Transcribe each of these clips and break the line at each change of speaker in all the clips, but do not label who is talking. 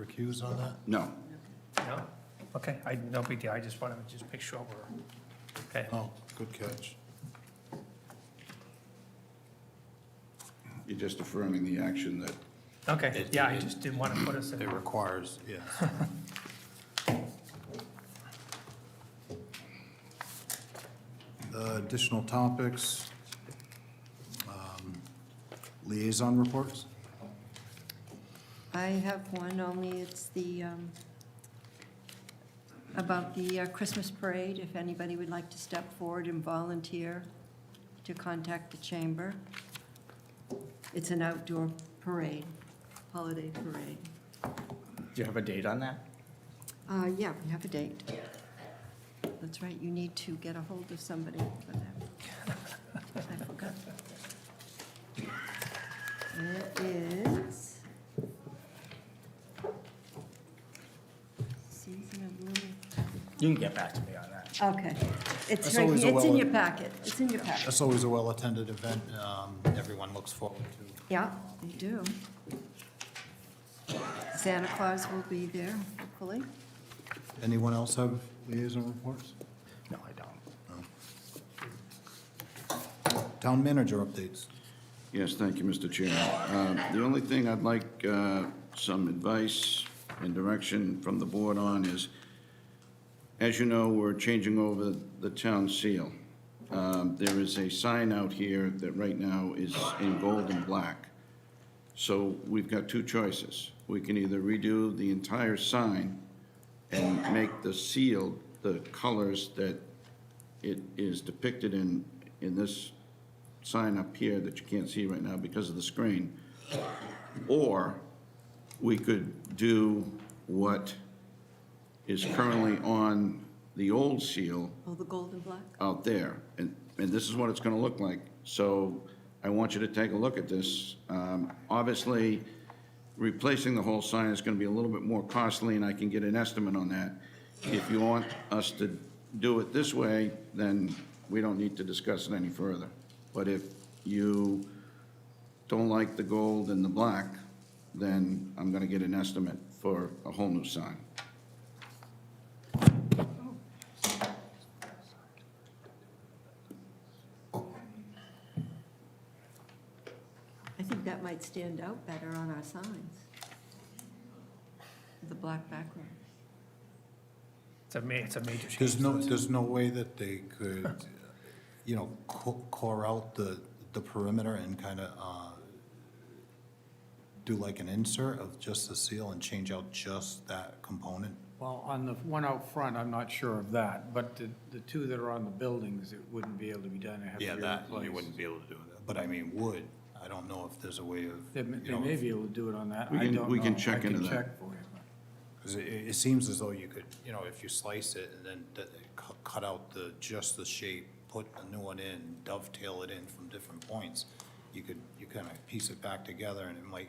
recuse on that?
No.
No? Okay, I, no big deal, I just wanted to just make sure we're, okay.
Oh, good catch.
You're just affirming the action that,
Okay,
It-
yeah, I
it-
just didn't want to put us in,
It requires, yeah. Uh, Additional topics. um, Liaison reports?
I have one, only it's the, um, about the uh, Christmas parade, if anybody would like to step forward and volunteer to contact the chamber. It's an outdoor parade, holiday parade.
Do you have a date on that?
Uh, Yeah, we have a date. That's right, you need to get a hold of somebody for that. I forgot. It is season of blooming.
You can get back to me on that.
Okay, it's
That's
right
always a
here, it's in
well-
your packet, it's in your packet.
That's always a well-attended event. um, Everyone looks forward to.
Yeah, they do. Santa Claus will be there, hopefully.
Anyone else have liaison reports?
No, I don't.
Town manager updates.
yes, thank you, Mr. Chairman. Uh, The only thing I'd like uh, some advice and direction from the board on is, as you know, we're changing over the town seal. Um, There is a sign out here that right now is in gold and black. So we've got two choices. We can either redo the entire sign and make the seal the colors that it is depicted in, in this sign up here that you can't see right now because of the screen. Or we could do what is currently on the old seal
Oh, the gold and black?
out there, and, and this is what it's gonna look like. So I want you to take a look at this. Um, Obviously, replacing the whole sign is gonna be a little bit more costly, and I can get an estimate on that. If you want us to do it this way, then we don't need to discuss it any further. But if you don't like the gold and the black, then I'm gonna get an estimate for a whole new sign.
I think that might stand out better on our signs. The black background.
it's a ma, it's a major change.
There's no, there's no way that they could, you know, co- core out the, the perimeter and kind of, uh, do like an insert of just the seal and change out just that component?
Well, on the one out front, I'm not sure of that, but the, the two that are on the buildings, it wouldn't be able to be done. It'd have to be replaced.
be able to do that. But I mean, wood, I don't know if there's a way of,
They may,
you
they
know,
may be able to do it on that.
We
I
can-
don't
we can
know.
check into that.
I can check for you. but-
'cause it, it seems as though you could, you know, if you slice it and then that they cu- cut out the, just the shape, put a new one in, dovetail it in from different points, you could, you kind of piece it back together and it might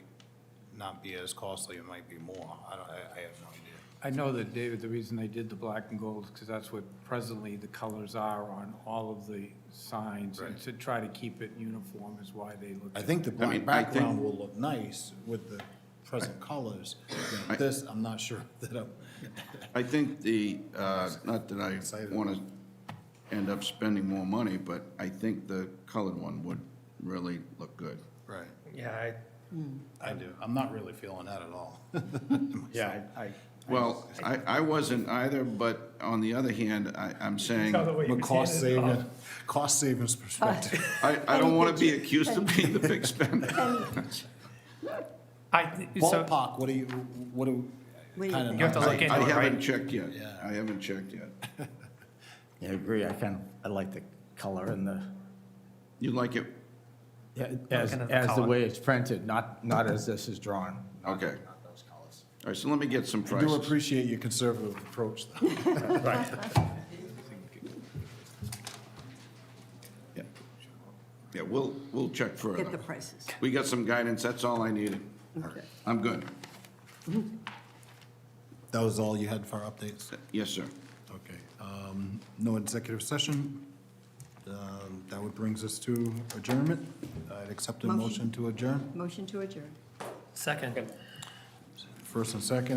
not be as costly, it might be more. I don't, I, I have no idea.
I know that, David, the reason they did the black and gold is because that's what presently the colors are on all of the signs. And
Right.
to try to keep it uniform is why they looked
I
at
think the
mean,
black
I think-
background will look nice with the present colors. You know,
I-
This, I'm not sure that I'm,
I think the, uh, not that I
Excited.
want to end up spending more money, but I think the colored one would really look good.
right,
Yeah, I,
I do, I'm not really feeling that at all.
Yeah, I, I,
Well, I, I wasn't either, but on the other hand, I, I'm saying,
Tell the way
From a
you
cost
did it,
saving, cost savings perspective.
I, I don't want to be accused of being the big spender.
I, thi- so,
Ballpark, what do you, what do?
Wait.
kinda
You have to
not-
I
look into it,
haven't
right?
checked yet.
Yeah.
I haven't checked yet.
I agree. I kind of, I like the color and the,
You like it?
yeah, as,
Looking at the
as the
color.
way it's printed, not, not as this is drawn. Not-
Okay.
not those colors.
All right, so let me get some
I do
prices.
appreciate your conservative approach, though.
Yeah. Yeah, we'll, we'll check
Get the
further.
prices.
We got some guidance, that's all I needed.
Okay.
I'm good.
That was all you had for updates?
Yes, sir.
Okay, um, no executive session. Um, That would brings us to adjournment. I'd accept a
Motion.
motion to adjourn,
Motion to adjourn.
second.
first and second.